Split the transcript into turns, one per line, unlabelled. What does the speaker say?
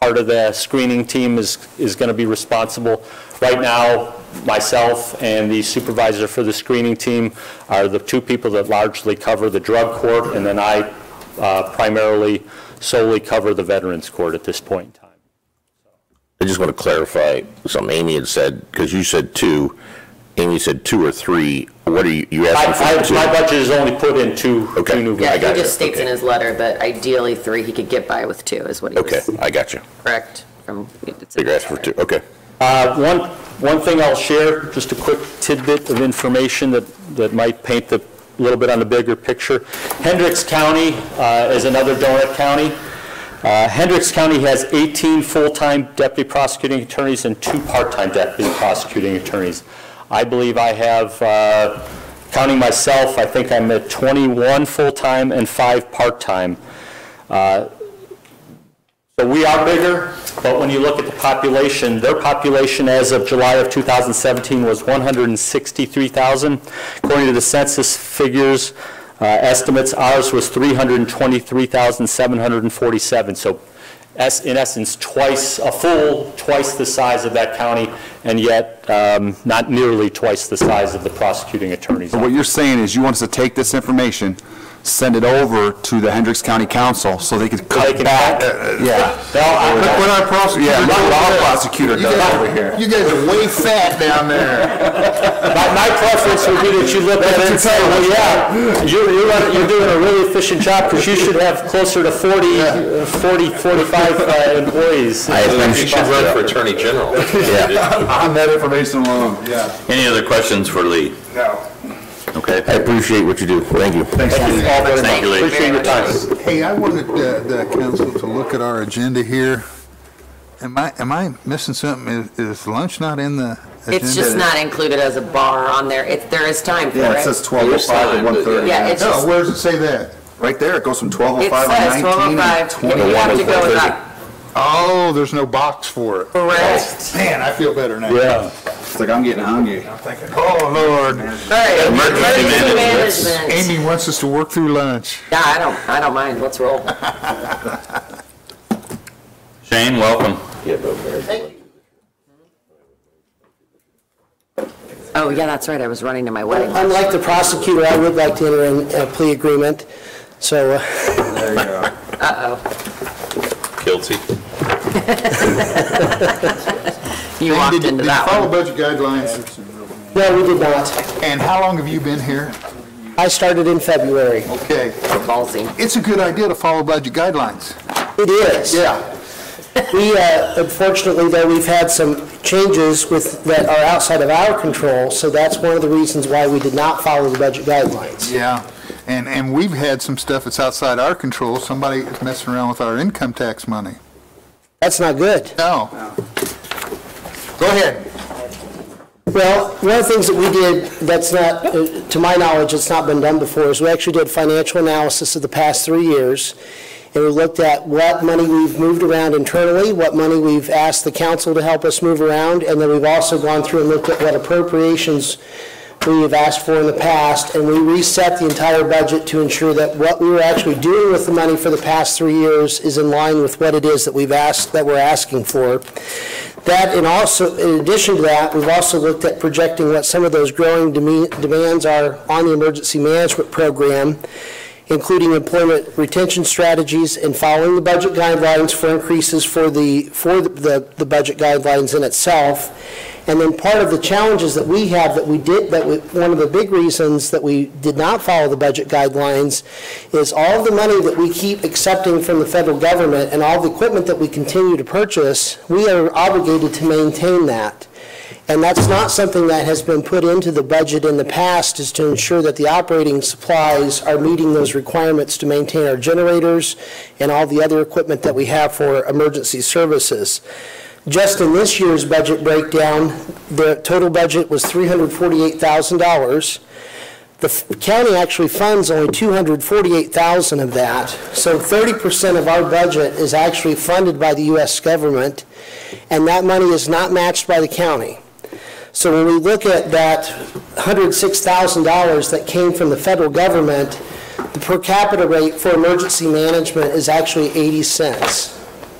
part of the screening team is, is going to be responsible. Right now, myself and the supervisor for the screening team are the two people that largely cover the drug court, and then I uh, primarily solely cover the veterans court at this point in time.
I just want to clarify something Amy had said, because you said two, Amy said two or three, what are you, you
I-
asking
I- My
for two?
budget is only put in two,
Okay.
two new
I
guys.
got
Yeah,
you.
he just states in
Okay.
his letter, but ideally three, he could get by with two, is what he
Okay,
was
I got you,
correct from. it's in
you're
his
asking for
letter.
two, okay.
Uh, One, one thing I'll share, just a quick tidbit of information that, that might paint the, a little bit on the bigger picture. Hendricks County uh, is another donut county. Uh, Hendricks County has 18 full-time deputy prosecuting attorneys and two part-time deputy prosecuting attorneys. I believe I have, uh, counting myself, I think I'm at 21 full-time and five part-time. Uh, So we are bigger, but when you look at the population, their population as of July of 2017 was 163,000. According to the census figures, uh, estimates, ours was 323,747. So es- in essence, twice, a full, twice the size of that county, and yet um, not nearly twice the size of the prosecuting attorney's
So what you're saying is you want us to take this information, send it over to the Hendricks County Council so they could
They
cut
can
back.
cut-
Yeah.
Well, I-
Look what our prosecutor, yeah, look what our prosecutor does over here.
You guys are way fat down there.
My, my preference would be that you look at it and say, well, yeah, you're, you're, run- you're doing a really efficient job, because you should have closer to 40, uh, 40, 45 uh, employees.
I
You should run for Attorney General.
On that information alone, yeah.
Any other questions for Lee?
No.
Okay, I appreciate what you do, thank you.
Thank you all very
Thank you,
much.
Lee.
Appreciate your time.
Hey, I wanted uh, the council to look at our agenda here. Am I, am I missing something? Is- Is lunch not in the agenda?
It's just not included as a bar on there. It, there is time for
Yeah, it says
it.
12:05 to 1:30.
Yeah, it's
No,
just,
where does it say that?
Right there, it goes from
it
12:05
says
to 19 and
12:05. and You
21.
have to go with that.
Oh, there's no box for it.
Correct.
Man, I feel better now.
Yeah.
It's like I'm getting hungry.
Oh, Lord.
All right,
Emergency management.
management.
Amy wants us to work through lunch.
Yeah, I don't, I don't mind. Let's roll.
Shane, welcome.
Oh, yeah, that's right. I was running to my wedding.
Unlike the prosecutor, I would like to enter in a plea agreement, so uh,
Guilty.
You walked
Did-
into
did you
that one.
Follow budget guidelines.
no, we did not.
And how long have you been here?
I started in February.
Okay.
Ballsy.
It's a good idea to follow budget guidelines.
It is.
Yeah.
We, uh, unfortunately, though, we've had some changes with, that are outside of our control, so that's one of the reasons why we did not follow the budget guidelines.
Yeah, and, and we've had some stuff that's outside our control. Somebody is messing around with our income tax money.
That's not good.
No. Go ahead.
Well, one of the things that we did that's not, uh, to my knowledge, it's not been done before, is we actually did financial analysis of the past three years, and we looked at what money we've moved around internally, what money we've asked the council to help us move around, and then we've also gone through and looked at what appropriations we have asked for in the past, and we reset the entire budget to ensure that what we were actually doing with the money for the past three years is in line with what it is that we've asked, that we're asking for. That, and also, in addition to that, we've also looked at projecting what some of those growing deme- demands are on the emergency management program, including employment retention strategies and following the budget guidelines for increases for the, for the, the budget guidelines in itself. And then part of the challenges that we have that we did, that we, one of the big reasons that we did not follow the budget guidelines is all the money that we keep accepting from the federal government and all the equipment that we continue to purchase, we are obligated to maintain that. And that's not something that has been put into the budget in the past, is to ensure that the operating supplies are meeting those requirements to maintain our generators and all the other equipment that we have for emergency services. Just in this year's budget breakdown, the total budget was $348,000. The f- county actually funds only 248,000 of that, so 30% of our budget is actually funded by the U.S. government, and that money is not matched by the county. So when we look at that $106,000 that came from the federal government, the per capita rate for emergency management is actually 80 cents.